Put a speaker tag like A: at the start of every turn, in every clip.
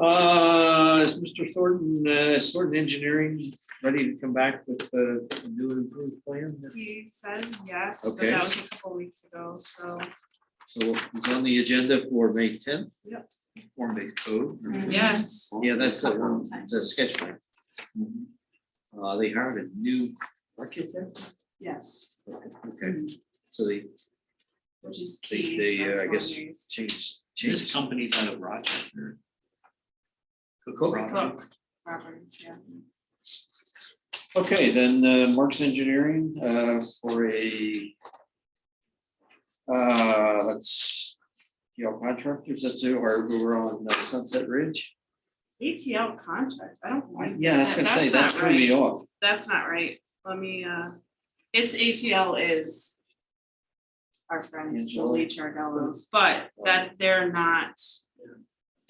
A: Uh, is Mr. Thornton, uh, is Thornton Engineering ready to come back with the new and improved plan?
B: He says yes, but
A: Okay.
B: that was a couple weeks ago, so,
A: So it's on the agenda for May tenth.
B: Yep.
A: Form based code.
B: yes.
A: Yeah, that's a, it's a sketch plan. Uh, they hired a new architect.
B: Yes,
A: Okay, so they
B: which is
A: They-
B: key.
A: they,
B: for
A: uh, I guess-
B: homeowners.
A: changed,
C: This
A: changed.
C: company's out of Rochester. Cook
A: Cool.
C: Rock.
B: Cook properties, yeah.
A: Okay, then uh, Marks Engineering uh, for a uh, that's, you know, contractors, that's who are, who were on uh, Sunset Ridge.
B: ATL contract, I don't like.
A: Yeah, I was gonna say, that
B: That's not
A: threw me
B: right,
A: off.
B: that's not right, let me, uh, it's ATL is our friends, the
A: Angelo.
B: Lee Chardellos, but that they're not, it's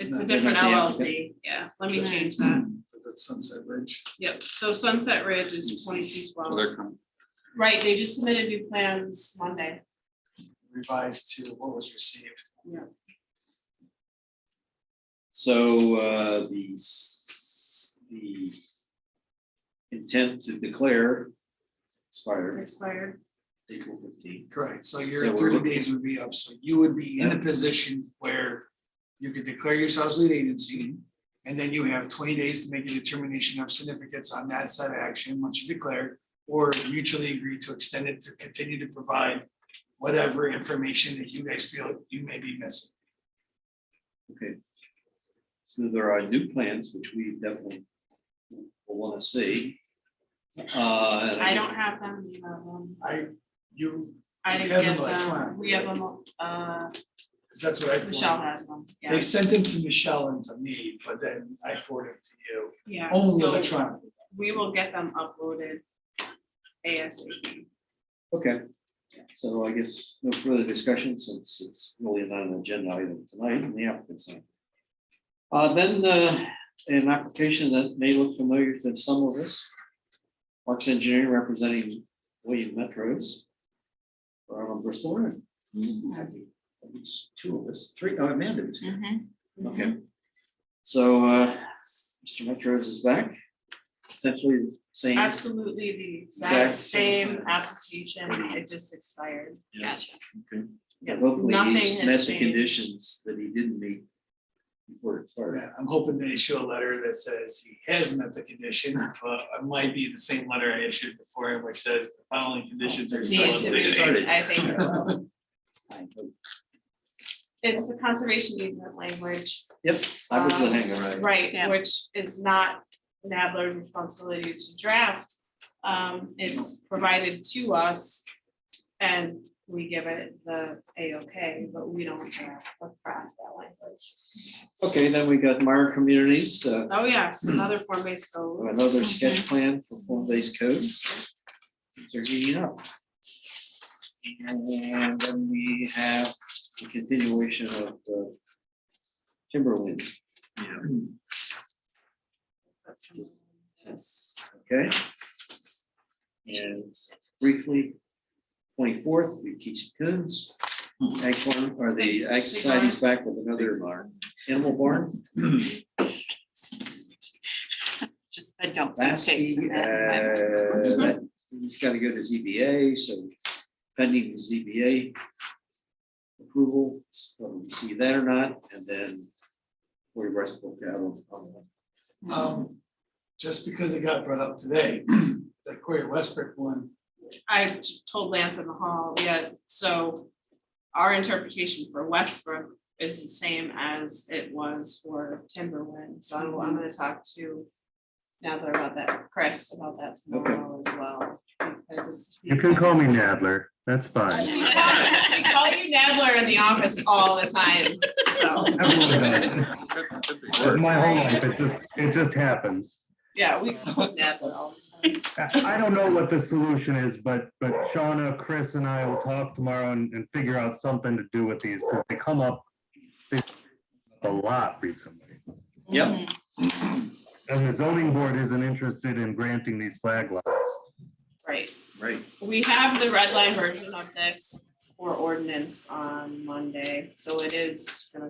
B: a
A: not- they're not
B: different
A: the applicant.
B: LLC, yeah, let me change that,
A: Hmm.
C: That's Sunset Ridge.
B: yep, so Sunset Ridge is twenty-two
C: So
B: twelve.
C: they're com-
B: Right, they just submitted new plans Monday.
C: revised to what was received.
A: So uh, the s- the intent to declare expired
B: Expired.
A: April fifteenth.
D: Correct, so
A: So
D: your
A: we're
D: thirty
A: looking-
D: days would be up, so you would be in a
A: Yeah.
D: position where you could declare yourselves lead agency. And then you have twenty days to make a determination of significance on that side of action, once you declare, or mutually agree to extend it to continue to provide whatever information that you guys feel you may be missing.
A: Okay. So there are new plans, which we definitely will want to see. Uh,
B: I don't have them, you have them.
D: I, you,
B: I
D: You
B: didn't
D: have
B: get
D: them
B: them,
D: electronic,
B: we have them, uh,
D: 'cause that's what I. forwarded.
B: Michelle has them, yeah,
D: They sent them to Michelle and to me, but then I forwarded it to you,
B: yeah,
D: only
B: so
D: electronically.
B: we will get them uploaded ASAP.
A: Okay, so I guess no further discussion since it's really not an agenda item tonight and the applicant's not. Uh, then, uh, an application that may look familiar to some of us. Marks Engineering representing William Metros. From Bristol. Area. I think at least Two of us, three, oh, Amanda was here.
B: Mm-hmm.
A: Okay. So, uh, Mr. Metros is back. Essentially the same.
B: Absolutely the
A: Exact
B: exact
A: same.
B: same application, it just expired.
A: Yeah.
B: Gotcha.
A: Okay.
B: Yeah,
A: Hopefully
B: nothing
A: he's
B: has
A: met the
B: changed.
A: conditions that he didn't meet before it started.
D: Yeah, I'm hoping to issue a letter that says he has met the condition, but it might be the same letter I issued before, which says the following conditions are still.
B: Need to be,
D: updated.
B: I think it will. It's the conservation easement language.
A: Yep, I was the hanger, right?
B: Right, which is not Nadler's responsibility to draft. Um, it's provided to us and we give it the A OK, but we don't draft or craft that language.
A: Okay, then we got Meyer Communities, uh,
B: Oh, yes, another form based code.
A: another sketch plan for form-based codes. They're heating up. And then we have the continuation of the Timberwind, okay? And briefly, twenty-fourth, we teach Coons. Ag farm, or the Ag Society's back with another animal barn.
E: Just, I don't see
A: Lasky,
E: things in that. in my mind.
A: uh, that- He's got to go to ZBA, so pending the ZBA approval, so we see that or not, and then we rest book out on- on.
D: Um, just because it got brought up today, the Corey Westbrook one,
B: I told Lance in the hall, yeah, so our interpretation for Westbrook is the same as it was for Timberland, so I'm, I'm gonna talk to Nadler about that, Chris about that tomorrow as well. because it's the-
F: You can call me Nadler. That's fine.
B: We call you Nadler in the office all the time, so,
F: That's my whole life. It just, it just happens.
B: yeah, we call him Nadler all the time.
F: I I don't know what the solution is, but, but Shauna, Chris and I will talk tomorrow and, and figure out something to do with these because they come up they come up a lot recently.
A: Yep.
F: And the zoning board isn't interested in granting these flag lots.
B: Right,
A: Right.
B: we have the red line version of this for ordinance on Monday, so it is gonna